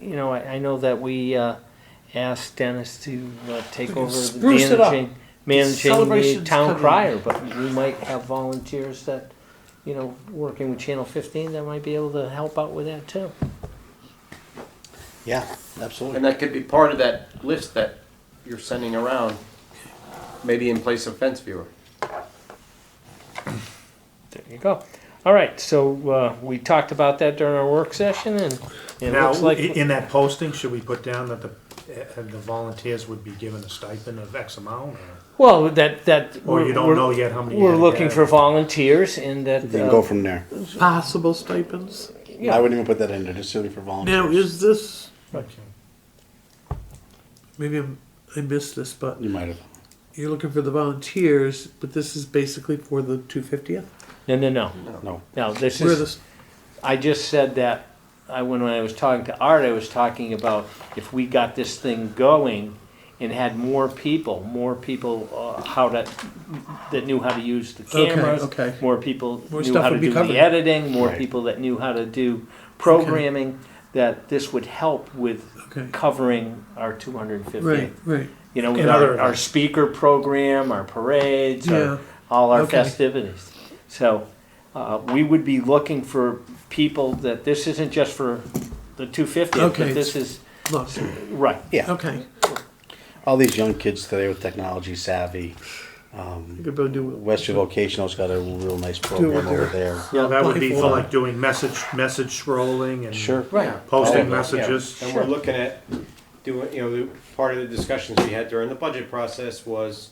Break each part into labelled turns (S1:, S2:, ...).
S1: you know, I, I know that we, uh, asked Dennis to, uh, take over the
S2: Spruce it up.
S1: managing, managing the
S2: celebration's
S1: town
S2: coming.
S1: crier, but we might have volunteers that, you know, working with Channel fifteen, that might be able to help out with that too.
S3: Yeah, absolutely.
S4: And that could be part of that list that you're sending around, maybe in place of fence viewer.
S1: There you go. All right, so, uh, we talked about that during our work session and it
S5: Now,
S1: looks
S5: i-
S1: like.
S5: in that posting, should we put down that the, uh, the volunteers would be given a stipend of X amount? or-
S1: Well, that, that.
S5: Or you don't
S1: we're-
S5: know yet how many?
S1: We're
S5: you
S1: looking
S5: have?
S1: for volunteers and that.
S3: You can
S1: uh,
S3: go from there.
S2: Possible stipends.
S3: I
S1: Yeah.
S3: wouldn't even put that in there, just simply for volunteers.
S2: Now, is this,
S5: Okay.
S2: maybe I'm- I missed this, but
S3: You might have.
S2: you're looking for the volunteers, but this is basically for the 250th?
S1: No, no, no.
S3: No.
S1: No, this
S2: Where
S1: is,
S2: this,
S1: I just said that, I, when I was talking to Art, I was talking about if we got this thing going and had more people, more people, uh, how to, that knew how to use the
S2: Okay,
S1: cameras.
S2: okay.
S1: More people
S2: More
S1: knew
S2: stuff
S1: how to
S2: would be
S1: do the
S2: covered.
S1: editing, more
S3: Right.
S1: people that knew how to do programming, that this would help with
S2: okay,
S1: covering our two hundred and
S2: right,
S1: fifty.
S2: right,
S1: You know, with
S5: And
S1: our,
S5: other
S1: our
S5: events.
S1: speaker program, our parades, our
S2: yeah.
S1: all our
S2: Okay.
S1: festivities. So uh, we would be looking for people that this isn't just for the 250th,
S2: Okay.
S1: but this is
S2: Look,
S1: right.
S3: Yeah,
S2: okay,
S3: all these young kids today with technology savvy.
S2: you
S3: Um,
S2: could go do it.
S3: Western Vocational's got a real nice
S2: it
S3: program
S2: there.
S3: over there.
S5: Well, that would be for
S2: Blindfold.
S5: like doing message, message scrolling and.
S3: Sure.
S1: Right.
S4: Oh, Yeah.
S5: Posting messages.
S4: And we're looking at doing, you know, the- part of the discussions we had during the budget process was,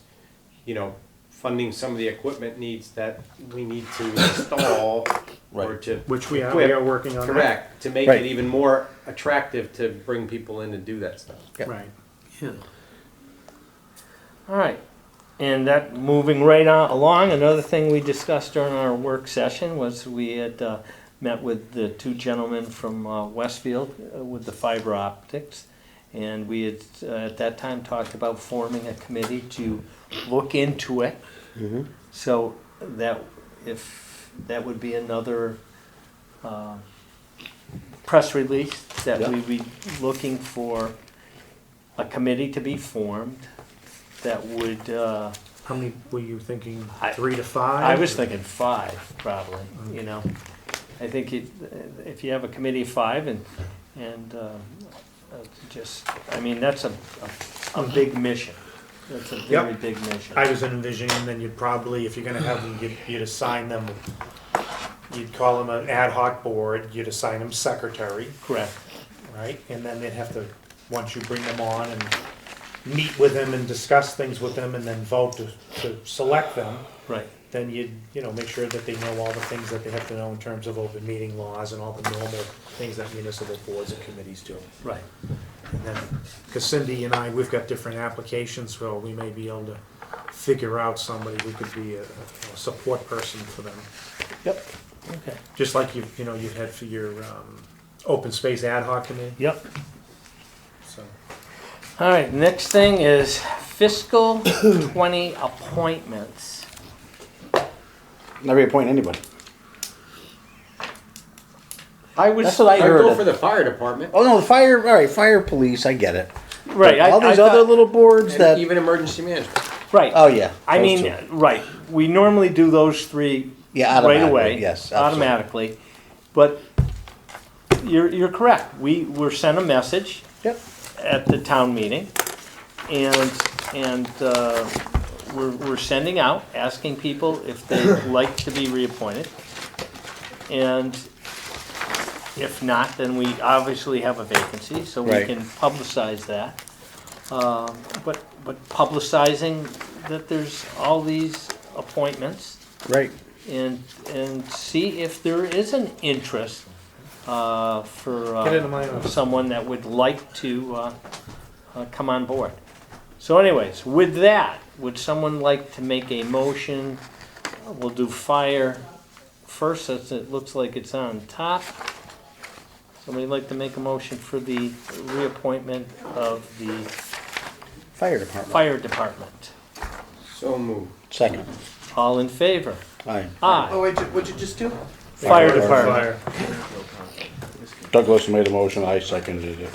S4: you know, funding some of the equipment needs that we need to install or
S3: Right.
S4: to.
S5: Which we are,
S4: equip.
S5: we are working on that.
S4: Correct, to make
S3: Right.
S4: it even more attractive to bring people in and do that stuff.
S5: Right.
S2: Yeah.
S1: All right. And that moving right on along, another thing we discussed during our work session was we had uh, met with the two gentlemen from uh, Westfield uh, with the fiber optics. And we had uh, at that time talked about forming a committee to look into it.
S3: Mhm.
S1: So that, if, that would be another um, press release that
S3: Yeah.
S1: we'd be looking for a committee to be formed that would, uh,
S5: How many were you thinking?
S1: I-
S5: Three to five?
S1: I was thinking five, probably, you know? I think it- if you have a committee of five and, and um, uh, just, I mean, that's a, a a big mission. That's a very big mission.
S5: I was envisioning then you'd probably, if you're gonna have them, you'd, you'd assign them, you'd call them an ad hoc board, you'd assign them secretary,
S1: Correct.
S5: right? And then they'd have to, once you bring them on and meet with them and discuss things with them and then vote to, to select them,
S1: Right,
S5: then you'd, you know, make sure that they know all the things that they have to know in terms of open meeting laws and all the normal things that municipal boards and committees do.
S1: right.
S5: And then, because Cindy and I, we've got different applications, so we may be able to figure out somebody who could be a, a support person for them.
S1: Yep. Okay.
S5: Just like you, you know, you had for your, um, open space ad hoc committee,
S1: Yep.
S5: so.
S1: All right, next thing is fiscal 20 appointments.
S3: Not reappoint anybody.
S1: I was.
S3: That's what I
S4: I'd go
S3: heard.
S4: for the fire department,
S3: Oh, no, the fire, all right, fire police, I get it.
S1: Right, I-
S3: All
S1: I
S3: these
S1: thought-
S3: other little boards
S4: and
S3: that,
S4: even emergency management.
S1: Right.
S3: oh, yeah.
S1: I
S3: those
S1: mean,
S3: two.
S1: right, we normally do those three
S3: Yeah,
S1: right
S3: automatically,
S1: away.
S3: yes, absolutely.
S1: Automatically, but you're, you're correct, we were sent a message
S3: Yep.
S1: at the town meeting, and, and, uh, we're, we're sending out, asking people if they'd like to be reappointed. And if not, then we obviously have a vacancy, so we
S3: Right.
S1: can publicize that. Um, But, but publicizing that there's all these appointments
S3: Right.
S1: and, and see if there is an interest uh, for uh,
S5: Get into my office.
S1: someone that would like to uh, uh, come on board. So anyways, with that, would someone like to make a motion? We'll do fire first, since it looks like it's on top. Somebody like to make a motion for the reappointment of the
S3: Fire department.
S1: fire department?
S4: So moved.
S3: Second.
S1: All in favor?
S3: Aye.
S1: Aye.
S2: Oh, wait, what'd you just do?
S1: Fire
S3: Fire
S1: department.
S5: Fire.
S3: Douglas made a motion, I seconded it.